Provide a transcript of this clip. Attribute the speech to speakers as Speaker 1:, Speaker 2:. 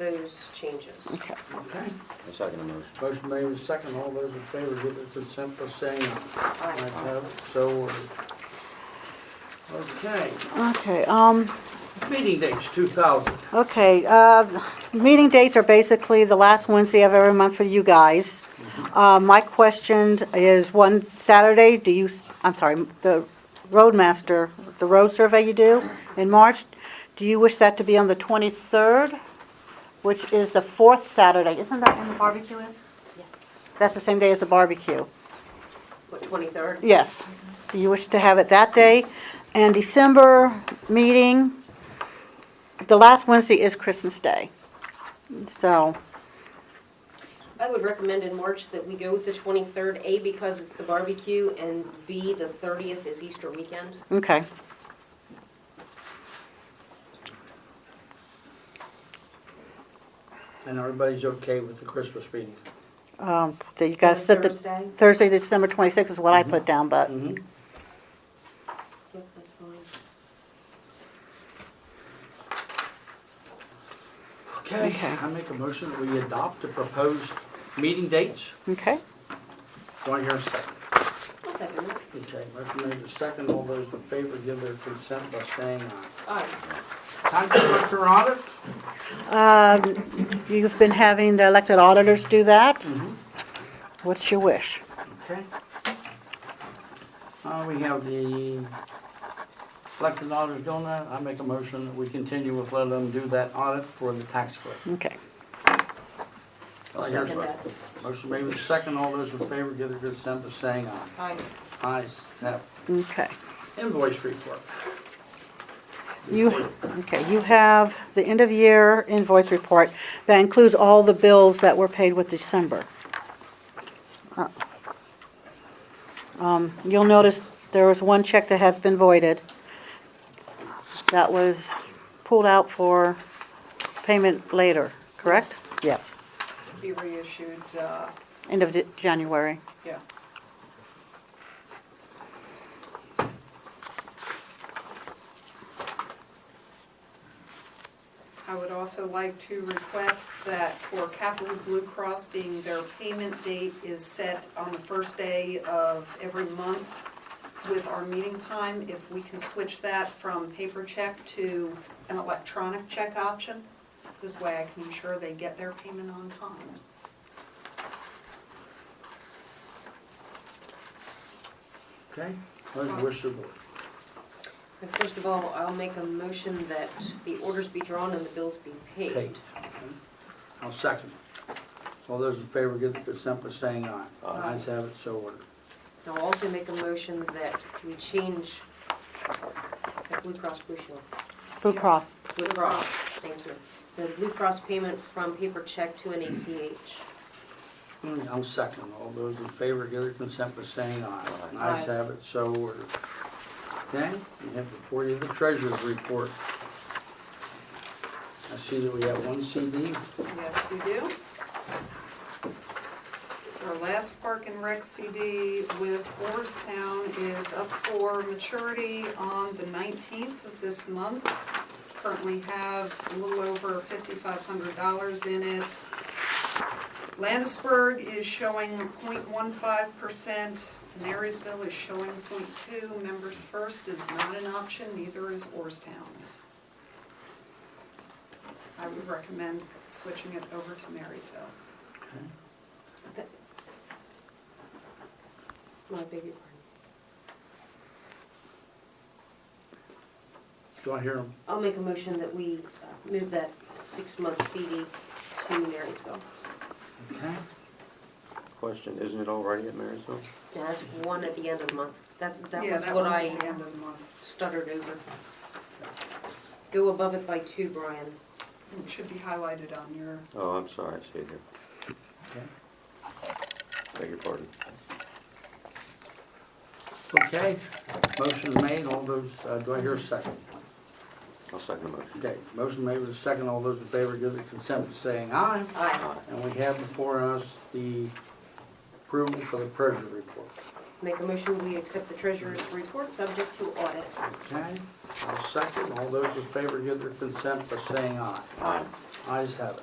Speaker 1: those changes.
Speaker 2: Okay.
Speaker 3: Okay.
Speaker 4: I second the motion.
Speaker 3: Motion made with second. All those in favor give their consent by saying aye.
Speaker 1: Aye.
Speaker 3: Ayes have it, so ordered. Okay,
Speaker 2: Okay, um,
Speaker 3: meeting dates, 2000.
Speaker 2: Okay, uh, meeting dates are basically the last Wednesday of every month for you guys. Uh, My question is, one Saturday, do you, I'm sorry, the roadmaster, the road survey you do in March, do you wish that to be on the 23rd, which is the fourth Saturday? Isn't that when the barbecue is?
Speaker 1: Yes.
Speaker 2: That's the same day as the barbecue.
Speaker 1: What, twenty-third?
Speaker 2: Yes. Do you wish to have it that day? And December meeting, the last Wednesday is Christmas Day. So,
Speaker 1: I would recommend in March that we go with the twenty-third, A, because it's the barbecue, and B, the thirtieth is Easter weekend.
Speaker 2: okay.
Speaker 3: And everybody's okay with the Christmas meeting?
Speaker 2: Um, that You gotta
Speaker 1: On
Speaker 2: set the,
Speaker 1: Thursday?
Speaker 2: Thursday, December 26th is what I put down, but,
Speaker 3: Mhm.
Speaker 1: Yep, that's fine.
Speaker 3: Okay,
Speaker 2: Okay.
Speaker 3: I make a motion that we adopt the proposed meeting dates.
Speaker 2: okay.
Speaker 3: Do I hear a second?
Speaker 1: I'll second that.
Speaker 3: Okay, motion made with second. All those in favor give their consent by saying aye.
Speaker 1: Aye.
Speaker 3: Time to work your audit.
Speaker 2: Um, You've been having the elected auditors do that? What's your wish?
Speaker 3: Okay. Uh, we have the elected auditors doing that. I make a motion that we continue with letting them do that audit for the tax collector.
Speaker 2: Okay.
Speaker 3: I hear a
Speaker 1: Second that.
Speaker 3: Motion made with second. All those in favor give their consent by saying aye.
Speaker 1: Aye.
Speaker 3: Ayes have.
Speaker 2: Okay.
Speaker 3: Invoice report.
Speaker 2: You, okay, you have the end-of-year invoice report that includes all the bills that were paid with December. Uh, Um, You'll notice there was one check that has been voided. That was pulled out for payment later, correct? Yes,
Speaker 5: be reissued, uh,
Speaker 2: end of Di- January.
Speaker 5: yeah. I would also like to request that for Capital Blue Cross being their payment date is set on the first day of every month with our meeting time, if we can switch that from paper check to an electronic check option. This way I can ensure they get their payment on time.
Speaker 3: Okay, what is the wish of the board?
Speaker 1: And First of all, I'll make a motion that the orders be drawn and the bills be paid.
Speaker 3: Paid. I'll second. All those in favor give their consent by saying aye.
Speaker 5: Aye.
Speaker 3: Ayes have it, so ordered.
Speaker 1: I'll also make a motion that we change the Blue Cross Blue Shield.
Speaker 2: Blue
Speaker 5: Yes.
Speaker 2: Cross,
Speaker 1: Blue Cross, thank you. The Blue Cross payment from paper check to an ACH.
Speaker 3: Mm, I'll second. All those in favor give their consent by saying aye.
Speaker 1: Aye.
Speaker 3: Ayes have it, so ordered. Okay, we have before you the treasurer's report. I see that we have one CD.
Speaker 5: Yes, we do. It's our last Park and Rec CD with Orstown is up for maturity on the 19th of this month. Currently have a little over $5,500 in it. Landisburg is showing 0.15%, Marysville is showing 0.2, Members First is not an option, neither is Orstown. I would recommend switching it over to Marysville.
Speaker 1: My beg your pardon.
Speaker 3: Do I hear them?
Speaker 1: I'll make a motion that we uh, move that six-month CD to Marysville.
Speaker 3: Okay.
Speaker 4: Question, isn't it already at Marysville?
Speaker 1: Yeah, that's one at the end of the month. That, that
Speaker 5: Yeah,
Speaker 1: was what
Speaker 5: one's
Speaker 1: I
Speaker 5: at the end of the month.
Speaker 1: stuttered over. Go above it by two, Brian.
Speaker 5: It should be highlighted on your,
Speaker 4: Oh, I'm sorry, I see it here.
Speaker 3: Okay.
Speaker 4: Beg your pardon.
Speaker 3: Okay, motion made, all those, uh, do I hear a second?
Speaker 4: I'll second the motion.
Speaker 3: Okay, motion made with a second, all those in favor give their consent by saying aye.
Speaker 1: Aye.
Speaker 3: And we have before us the approval for the treasury report.
Speaker 1: Make a motion, we accept the treasurer's report, subject to audit.
Speaker 3: Okay, I'll second, all those in favor give their consent by saying aye.
Speaker 4: Aye.
Speaker 3: Ayes have it.